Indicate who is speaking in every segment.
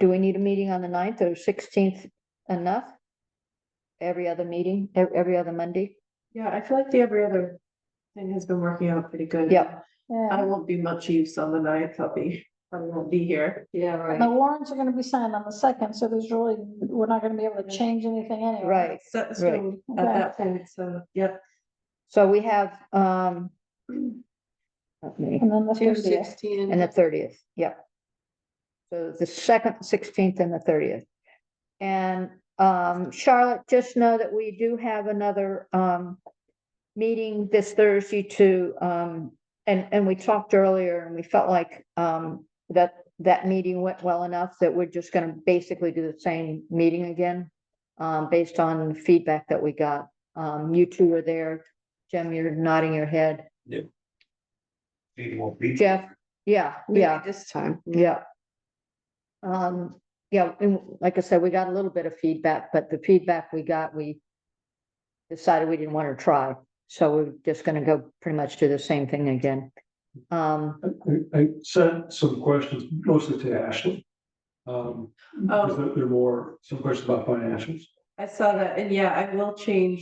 Speaker 1: Do we need a meeting on the ninth or sixteenth enough? Every other meeting, ev- every other Monday?
Speaker 2: Yeah, I feel like the every other thing has been working out pretty good.
Speaker 1: Yeah.
Speaker 2: I won't be much use on the ninth, I'll be, I won't be here.
Speaker 1: Yeah,
Speaker 3: And the warrants are gonna be signed on the second, so there's really, we're not gonna be able to
Speaker 2: Mm-hmm.
Speaker 3: change anything anyway.
Speaker 1: Right,
Speaker 2: Set in stone at
Speaker 3: Okay.
Speaker 2: that point, so, yeah.
Speaker 1: so we have, um. let me-
Speaker 3: And then the
Speaker 2: Two
Speaker 3: fiftieth,
Speaker 2: sixteen.
Speaker 1: And the thirtieth, yep. So the second, sixteenth and the thirtieth. And um, Charlotte, just know that we do have another um. Meeting this Thursday to um, and and we talked earlier and we felt like um that. That meeting went well enough that we're just gonna basically do the same meeting again. Um, based on feedback that we got. Um, you two were there. Jim, you're nodding your head.
Speaker 4: It won't be.
Speaker 1: Jeff, yeah, yeah.
Speaker 2: This time.
Speaker 1: Yeah. Um, yeah, and like I said, we got a little bit of feedback, but the feedback we got, we decided we didn't want to try. So we're just gonna go pretty much do the same thing again. Um,
Speaker 5: I, I- I sent some questions mostly to Ashley. Um, because
Speaker 2: Oh,
Speaker 5: there- there are more, some questions about financials.
Speaker 2: I saw that, and yeah, I will change,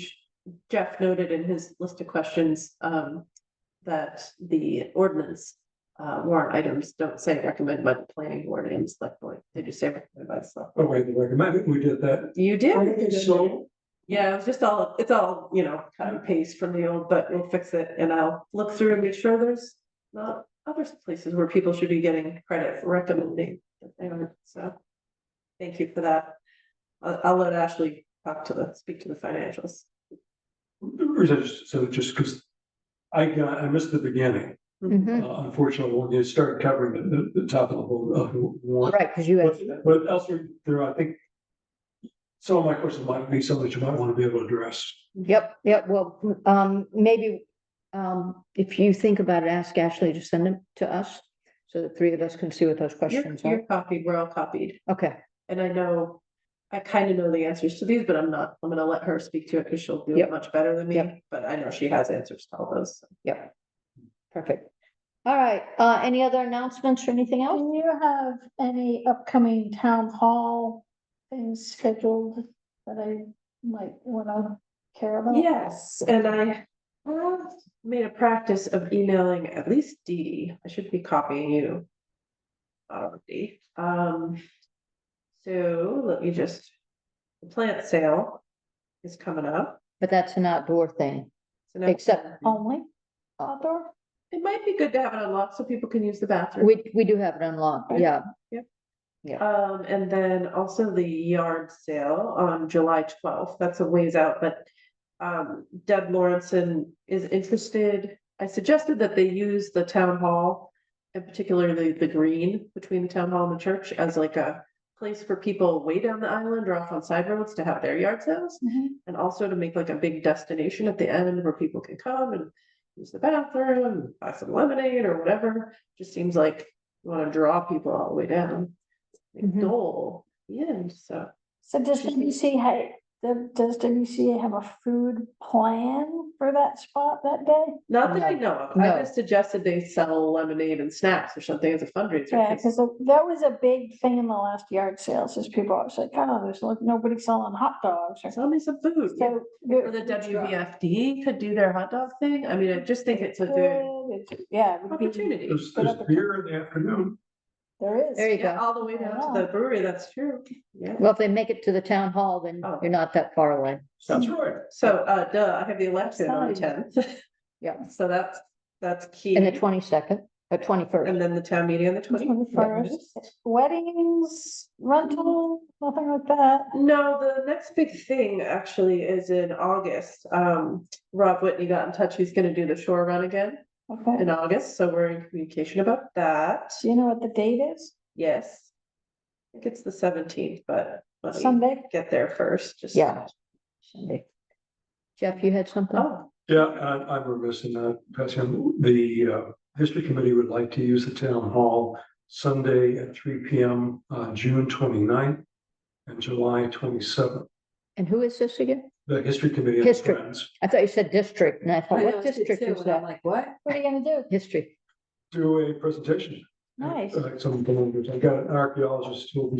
Speaker 2: Jeff noted in his list of questions, um, that the ordinance uh, warrant items don't say recommend by the planning board and select board, they just say recommend by the select.
Speaker 5: Oh, wait, they recommended, we did that.
Speaker 2: You did.
Speaker 5: So,
Speaker 2: Yeah, it's just all, it's all, you know, cut and paste from the old, but we'll fix it and I'll look through and make sure there's not other places where people should be getting credit for recommending. that they are. So, thank you for that. I'll, I'll let Ashley talk to the, speak to the financials.
Speaker 5: or is it just- so just because I got, I missed the beginning.
Speaker 1: mhm,
Speaker 5: Uh, Unfortunately, when you started covering the, the, the top of the whole, uh, one.
Speaker 1: right, because you had,
Speaker 5: But but elsewhere, there, I think some of my questions might be something that you might want to be able to address.
Speaker 1: yep, yep, well, um, maybe um, if you think about it, ask Ashley to send them to us so the three of us can see what those
Speaker 2: You're,
Speaker 1: questions are.
Speaker 2: you're copied, we're all copied.
Speaker 1: Okay,
Speaker 2: And I know, I kind of know the answers to these, but I'm not, I'm gonna let her speak to it because she'll do
Speaker 1: Yep.
Speaker 2: it much better than
Speaker 1: Yep.
Speaker 2: me. But I know she has answers to all those.
Speaker 1: yep. Perfect. All right, uh, any other announcements or anything else?
Speaker 3: do you have any upcoming town hall things scheduled that I might wanna care about?
Speaker 2: Yes, and I have made a practice of emailing at least Dee Dee. I should be copying you. Already, um. So let me just, the plant sale is coming up.
Speaker 1: But that's an outdoor thing,
Speaker 2: so now-
Speaker 1: except
Speaker 3: Only outdoor?
Speaker 2: It might be good to have it unlocked so people can use the bathroom.
Speaker 1: we, we do have it unlocked,
Speaker 2: Right.
Speaker 1: yeah.
Speaker 2: Um, and then also the yard sale on July twelfth, that's a ways out, but. Um, Deb Lawrenson is interested, I suggested that they use the town hall. And particularly the green between the town hall and the church as like a place for people way down the island or off on side roads to have their yard sales. And also to make like a big destination at the end where people can come and use the bathroom, buy some lemonade or whatever. Just seems like you wanna draw people all the way down. Like
Speaker 1: Mhm.
Speaker 2: goal, yeah, so.
Speaker 3: So does WCA, the- does WCA have a food plan for that spot that day?
Speaker 2: Not that I
Speaker 1: No,
Speaker 2: know of, I
Speaker 1: no.
Speaker 2: just suggested they sell lemonade and snacks or something as a fundraiser.
Speaker 3: Yeah,
Speaker 2: 'cause
Speaker 3: because that was a big thing in the last yard sales, is people are like, oh, there's like nobody selling hot dogs or.
Speaker 2: Sell me some food. yeah.
Speaker 3: So.
Speaker 2: Or the WVFD could do their hot dog thing. I mean, I just think it's a good
Speaker 3: Yeah. it would be-
Speaker 2: opportunity.
Speaker 5: There's, there's beer in the afternoon.
Speaker 3: There is.
Speaker 1: There you
Speaker 2: Yeah,
Speaker 1: go.
Speaker 2: all the way down to the brewery, that's true, yeah.
Speaker 1: Well, if they make it to the town hall, then
Speaker 2: Oh.
Speaker 1: you're not that far away.
Speaker 2: That's right. So, uh, duh, I have the election on the tenth.
Speaker 1: Yeah.
Speaker 2: So that's, that's key.
Speaker 1: And the twenty-second, or twenty-first,
Speaker 2: And then the town meeting on the twenty.
Speaker 3: Twenty-first, weddings, rental, nothing like that.
Speaker 2: No, the next big thing actually is in August. Um, Rob Whitney got in touch. He's gonna do the shore run again
Speaker 3: Okay,
Speaker 2: in August, so we're in communication about that.
Speaker 3: do you know what the date is?
Speaker 2: Yes. I think it's the seventeenth, but let me
Speaker 3: Sunday?
Speaker 2: get there first, just.
Speaker 1: Yeah. Sunday. Jeff, you had something?
Speaker 2: Oh,
Speaker 5: Yeah, I, I'm remiss in not passing, the, uh, history committee would like to use the town hall Sunday at three P M, uh, June 29th and July twenty-seventh.
Speaker 1: And who is this again?
Speaker 5: The history committee. and
Speaker 1: History.
Speaker 5: friends
Speaker 1: I thought you said district, and I thought, what district is that?
Speaker 3: What are you gonna do?
Speaker 1: History.
Speaker 5: Do a presentation.
Speaker 3: Nice.
Speaker 5: Like some, I've got an archaeologist who will be